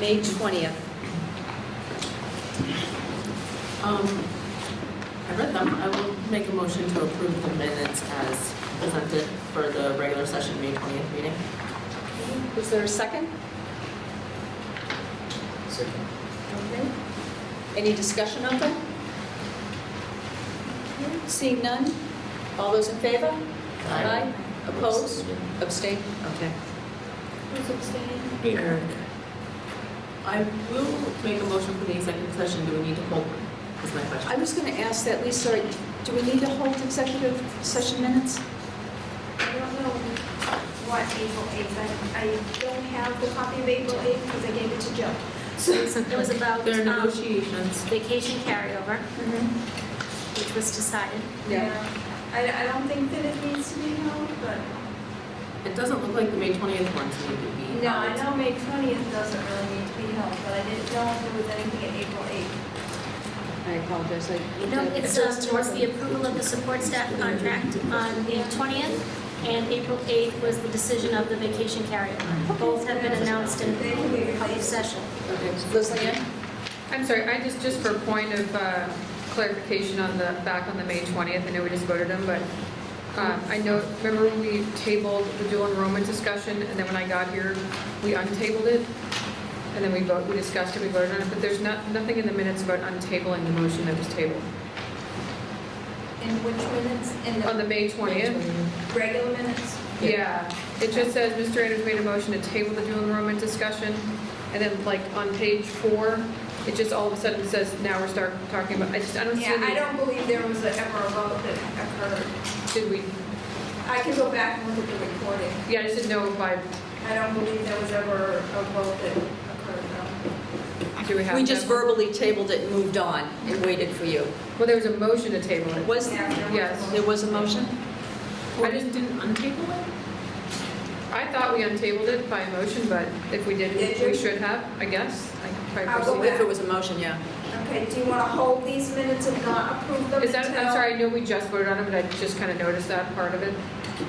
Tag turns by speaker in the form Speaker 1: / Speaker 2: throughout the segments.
Speaker 1: May 20th.
Speaker 2: Um, I read them. I will make a motion to approve the minutes as presented for the regular session May 20th meeting.
Speaker 1: Is there a second?
Speaker 3: Second.
Speaker 1: Okay. Any discussion on them? Seeing none? All those in favor?
Speaker 2: Aye.
Speaker 1: Opposed? Abstain? Okay.
Speaker 4: Who's abstaining?
Speaker 2: I will make a motion for the executive session. Do we need to hold? Is my
Speaker 1: I
Speaker 2: question.
Speaker 1: was going to ask that, Lisa, sorry, do we need to hold executive session minutes?
Speaker 4: I don't know what April 8th, I, I don't have the copy of April 8th because I gave it to Joe. So it's- it was about
Speaker 2: There are
Speaker 4: um,
Speaker 2: negotiations.
Speaker 4: vacation carryover,
Speaker 5: Mm-hmm.
Speaker 4: which was decided.
Speaker 1: Yeah.
Speaker 4: I, I don't think that it needs to be held, but,
Speaker 2: It doesn't look like the May 20th ones need to be held.
Speaker 4: no, I know May 20th doesn't really need to be held, but I didn't know if there was anything at April 8th.
Speaker 1: I apologize. I-
Speaker 5: You know, it's uh, towards the approval of the support staff contract on the 20th, and April 8th was the decision of the vacation carryover. Both have been announced in public session.
Speaker 1: Okay. Liz Leanne?
Speaker 6: I'm sorry, I just, just for point of uh, clarification on the, back on the May 20th, I know we just voted them, but um, I know, remember when we tabled the dual enrollment discussion, and then when I got here, we untabled it? And then we vote, we discussed it, we voted on it, but there's not, nothing in the minutes about untabling the motion that was tabled.
Speaker 4: In which minutes? In
Speaker 6: On the
Speaker 4: the
Speaker 6: May 20th?
Speaker 4: regular minutes?
Speaker 6: Yeah, it just says Mr. Anders made a motion to table the dual enrollment discussion, and then like on page four, it just all of a sudden says, now we're start talking about, I just, I don't see.
Speaker 4: Yeah,
Speaker 6: any-
Speaker 4: I don't believe there was a- ever a vote that occurred.
Speaker 6: Did we,
Speaker 4: I can go back and look at the recording.
Speaker 6: yeah, I just didn't know if I,
Speaker 4: I don't believe there was ever a vote that occurred,
Speaker 6: do we have?
Speaker 1: We just
Speaker 6: that?
Speaker 1: verbally tabled it and moved on and waited for you.
Speaker 6: Well, there was a motion to table it.
Speaker 1: Was,
Speaker 4: no. Yeah, there was a
Speaker 6: Yes.
Speaker 4: vote.
Speaker 1: there was a motion?
Speaker 2: I just didn't untable it?
Speaker 6: I thought we untabled it by motion, but if we did,
Speaker 4: Did
Speaker 6: we
Speaker 4: you?
Speaker 6: should have, I guess. I can try
Speaker 4: I'll go
Speaker 6: proceed.
Speaker 4: back.
Speaker 1: If it was a motion, yeah.
Speaker 4: Okay, do you want to hold these minutes and not approve them
Speaker 6: Is that, I'm
Speaker 4: until-
Speaker 6: sorry, I know we just voted on it, but I just kind of noticed that part of it.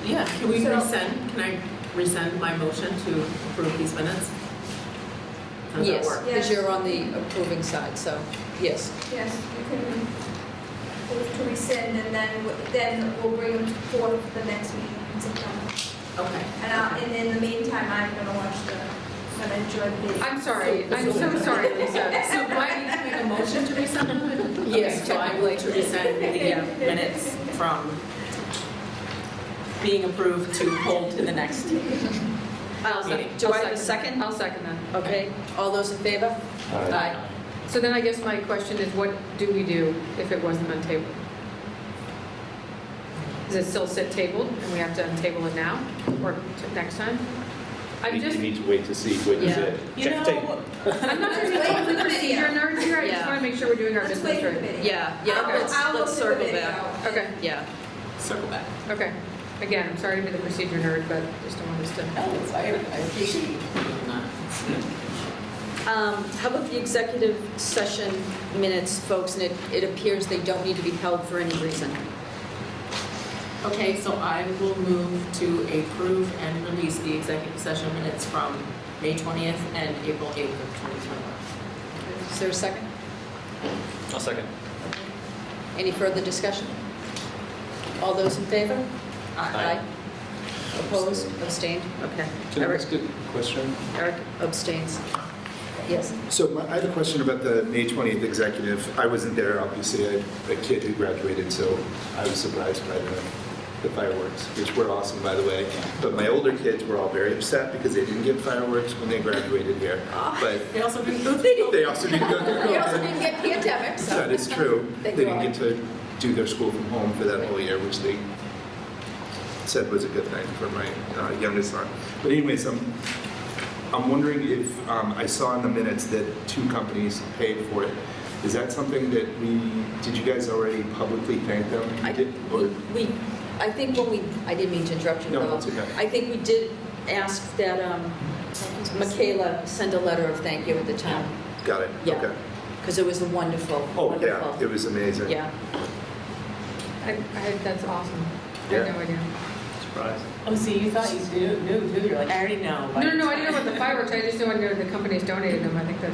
Speaker 2: Yeah, can we
Speaker 4: So-
Speaker 2: resend? Can I resend my motion to approve these minutes? How does that
Speaker 1: Yes,
Speaker 2: work?
Speaker 1: because you're on the approving side, so, yes.
Speaker 4: Yes, you can move to rescind, and then, w- then we'll bring them forward for the next meeting in September.
Speaker 2: Okay.
Speaker 4: And I'll, and in the meantime, I'm going to watch the, I'm going to enjoy the.
Speaker 6: I'm sorry, I'm so sorry, Lisa.
Speaker 2: So do I need to make a motion to resend them?
Speaker 1: Yes,
Speaker 2: Okay, So I
Speaker 1: technically.
Speaker 2: move to resend the minutes from being approved to hold to the next.
Speaker 1: I'll
Speaker 2: second.
Speaker 1: Um,
Speaker 2: Uh,
Speaker 1: Do I have a second?
Speaker 6: I'll second that.
Speaker 1: Okay, all those in favor? Aye.
Speaker 6: So then I guess my question is, what do we do if it wasn't untabled? Does it still sit tabled, and we have to untable it now, or t- next time?
Speaker 7: You
Speaker 6: I'm
Speaker 7: you
Speaker 6: just,
Speaker 7: need to wait to see what is
Speaker 1: Yeah.
Speaker 7: it.
Speaker 2: You
Speaker 7: Check the tape.
Speaker 2: know,
Speaker 6: I'm not trying to
Speaker 4: Wait for
Speaker 6: be
Speaker 4: the
Speaker 6: a procedure
Speaker 4: video.
Speaker 6: nerd here, I
Speaker 1: Yeah.
Speaker 6: just want to make sure we're doing our
Speaker 4: Let's wait
Speaker 6: business
Speaker 4: for the
Speaker 6: right.
Speaker 4: video.
Speaker 1: Yeah, yeah,
Speaker 4: I'll-
Speaker 1: let's,
Speaker 4: I'll
Speaker 1: let's
Speaker 4: look at the
Speaker 1: circle back.
Speaker 4: video.
Speaker 6: Okay,
Speaker 1: Yeah.
Speaker 2: circle back.
Speaker 6: okay. Again, I'm sorry to be the procedure nerd, but just don't want us to.
Speaker 2: No, it's fine. Oh, I appreciate you doing that.
Speaker 1: Um, How about the executive session minutes, folks, and it, it appears they don't need to be held for any reason.
Speaker 2: Okay, so I will move to approve and release the executive session minutes from May 20th and April 8th of 2021.
Speaker 1: Is there a second?
Speaker 7: I'll second.
Speaker 1: Any further discussion? All those in favor?
Speaker 7: Aye.
Speaker 1: Opposed, abstained? Okay.
Speaker 3: Can I
Speaker 1: Eric-
Speaker 3: ask a question?
Speaker 1: Eric abstains. Yes.
Speaker 8: So my- I had a question about the May 20th executive. I wasn't there, obviously, I had a kid who graduated, so I was surprised by the the fireworks, which were awesome, by the way. But my older kids were all very upset because they didn't get fireworks when they graduated here. But
Speaker 2: They also didn't go
Speaker 8: they also didn't go through
Speaker 1: You also
Speaker 8: COVID.
Speaker 1: didn't get pandemic, so.
Speaker 8: That is true.
Speaker 1: Thank
Speaker 8: They didn't
Speaker 1: God.
Speaker 8: get to do their school from home for that whole year, which they said was a good thing for my uh, youngest son. But anyways, I'm, I'm wondering if, um, I saw in the minutes that two companies paid for it. Is that something that we, did you guys already publicly thank them?
Speaker 1: I,
Speaker 8: Did-
Speaker 1: we,
Speaker 8: or-
Speaker 1: we- I think when we, I didn't mean to interrupt you,
Speaker 8: No,
Speaker 1: Bill.
Speaker 8: that's okay.
Speaker 1: I think we did ask that um, Michaela send a letter of thank you at the time,
Speaker 8: Got it,
Speaker 1: Yeah.
Speaker 8: okay.
Speaker 1: because it was a wonderful,
Speaker 8: Oh, yeah, it
Speaker 1: wonderful.
Speaker 8: was amazing.
Speaker 1: Yeah.
Speaker 6: I, I, that's awesome. I
Speaker 8: Yeah.
Speaker 6: had no idea.
Speaker 8: It's
Speaker 9: Surprise.
Speaker 2: Oh, see, you thought you knew, knew, knew, you're like, I already know.
Speaker 6: No, no, no, I didn't know about the fireworks, I just know I know the company's donated them, I think that's